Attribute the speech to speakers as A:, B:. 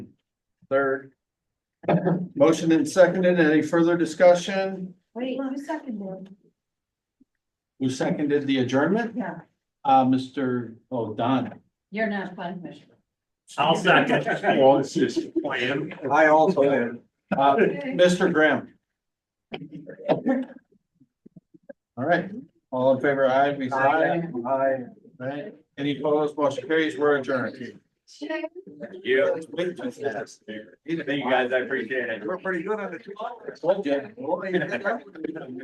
A: third. Motion and seconded. Any further discussion?
B: Wait, who seconded?
A: Who seconded the adjournment?
B: Yeah.
A: Uh, Mr. Oh, Don.
B: You're not planning commissioner.
C: I'll second.
A: Well, it's
C: Plan.
A: I also am. Uh, Mr. Graham. All right, all in favor, aye, please. Aye. Aye. Right, any opposed, motion carries, we're adjourned.
C: Yeah.
A: Thank
C: Thank you guys, I appreciate it.
A: We're pretty good on the two.